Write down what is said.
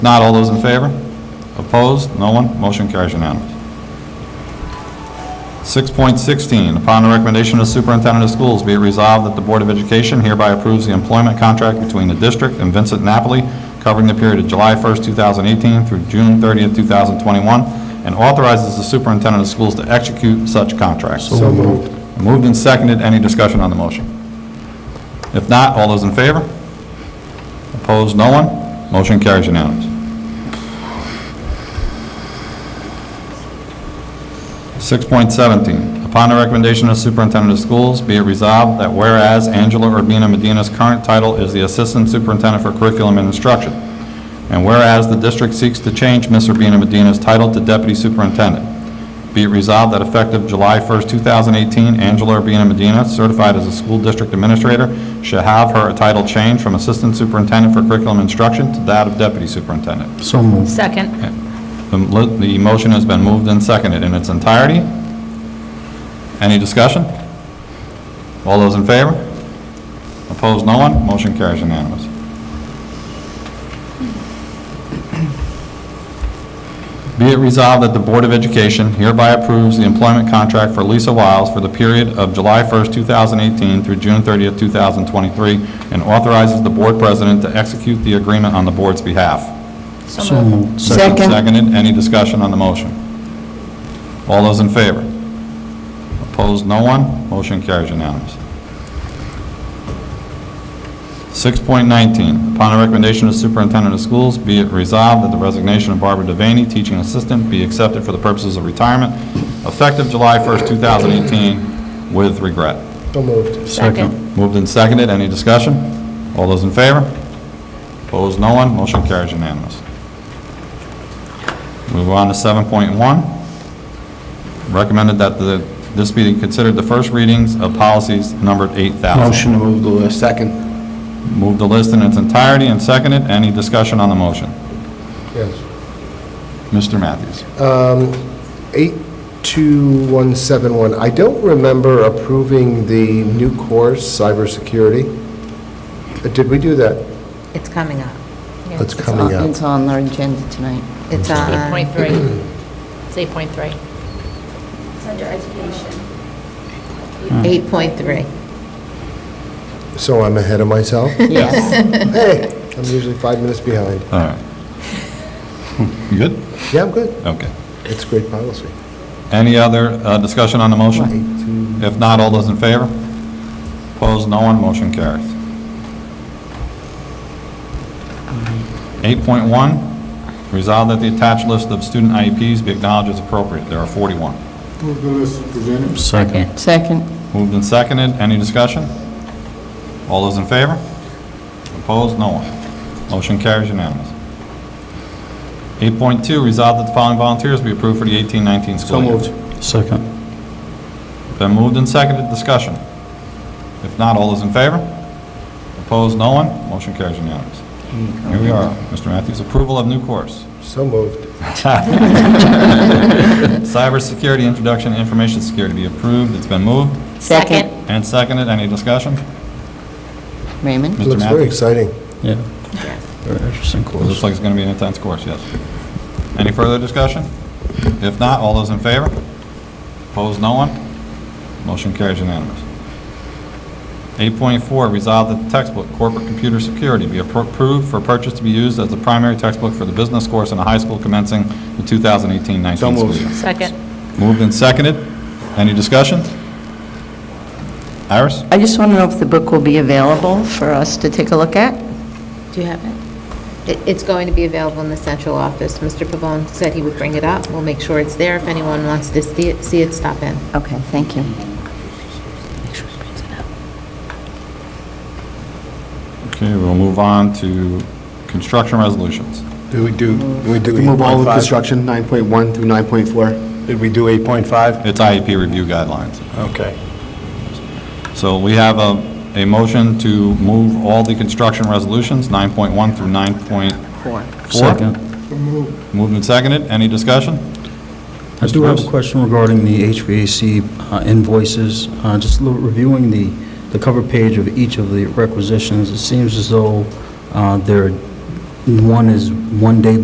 Not all those in favor? Opposed? No one? Motion carries unanimous. 6.16, upon the recommendation of the superintendent of schools, be it resolved that the Board of Education hereby approves the employment contract between the district and Vincent Napoli covering the period of July 1st, 2018 through June 30th, 2021, and authorizes the superintendent of schools to execute such contracts. So moved. Moved and seconded. Any discussion on the motion? If not, all those in favor? Opposed, no one? Motion carries unanimous. 6.17, upon the recommendation of superintendent of schools, be it resolved that whereas Angela Urbina Medina's current title is the Assistant Superintendent for Curriculum and Instruction, and whereas the district seeks to change Ms. Urbina Medina's title to Deputy Superintendent, be it resolved that effective July 1st, 2018, Angela Urbina Medina, certified as a school district administrator, shall have her title changed from Assistant Superintendent for Curriculum Instruction to that of Deputy Superintendent. So moved. Second. The mo- the motion has been moved and seconded in its entirety. Any discussion? All those in favor? Opposed, no one? Motion carries unanimous. Be it resolved that the Board of Education hereby approves the employment contract for Lisa Wiles for the period of July 1st, 2018 through June 30th, 2023, and authorizes the Board President to execute the agreement on the Board's behalf. So moved. Second. Seconded. Any discussion on the motion? All those in favor? Opposed, no one. Motion carries unanimous. 6.19, upon the recommendation of superintendent of schools, be it resolved that the resignation of Barbara Devaney, teaching assistant, be accepted for the purposes of retirement, effective July 1st, 2018, with regret. So moved. Second. Moved and seconded. Any discussion? All those in favor? Opposed, no one. Motion carries unanimous. Move on to 7.1. Recommended that the, this be considered the first readings of policies numbered 8,000. Motion to move the list. Second. Move the list in its entirety and seconded. Any discussion on the motion? Yes. Mr. Matthews. 82171, I don't remember approving the new course, cybersecurity. Uh, Did we do that? It's coming up. It's coming up. It's on our agenda tonight. It's on, 8.3. It's 8.3. It's under education. 8.3. So I'm ahead of myself? Yes. Hey, I'm usually five minutes behind. All right. You good? Yeah, I'm good. Okay. It's great policy. Any other uh, discussion on the motion? 82. If not, all those in favor? Opposed, no one, motion carries. 8.1, resolve that the attached list of student IEPs be acknowledged as appropriate. There are 41. Move the list presented. Second. Second, Moved and seconded, any discussion? All those in favor? Opposed, no one. Motion carries unanimous. 8.2, resolve that the following volunteers be approved for the 18-19 school So year. moved. Second. Been moved and seconded, discussion. If not, all those in favor? Opposed, no one? Motion carries unanimous. Here we are, Mr. Matthews, approval of new course. So moved. Cybersecurity Introduction to Information Security be approved, it's been moved Second. and seconded, any discussion? Raymond? Mr. Looks very Matthews? exciting. Yeah. Very interesting Looks course. like it's going to be an intense course, yes. Any further discussion? If not, all those in favor? Opposed, no one? Motion carries unanimous. 8.4, resolve that the textbook Corporate Computer Security be appro- approved for purchase to be used as the primary textbook for the business course in a high school commencing the 2018-19 So school moved. year. Second. Moved and seconded. Any discussion? Iris? I just want to know if the book will be available for us to take a look at? Do you have it? It- It's going to be available in the central office. Mr. Pavone said he would bring it up. We'll make sure it's there. If anyone wants to see it- see it, stop in. Okay, thank you. Okay, we'll move on to construction resolutions. Do we do, do we do Move all of 8.5? construction, 9.1 through 9.4? Did we do 8.5? It's IEP review guidelines. Okay. So we have a, a motion to move all the construction resolutions, 9.1 through 9.4. Four. Second. Moved and seconded, any discussion? I Mr. do have a Rose? question regarding the HVAC uh, invoices. Uh, Just lo- reviewing the, the cover page of each of the requisitions, it seems as though uh, they're One is one day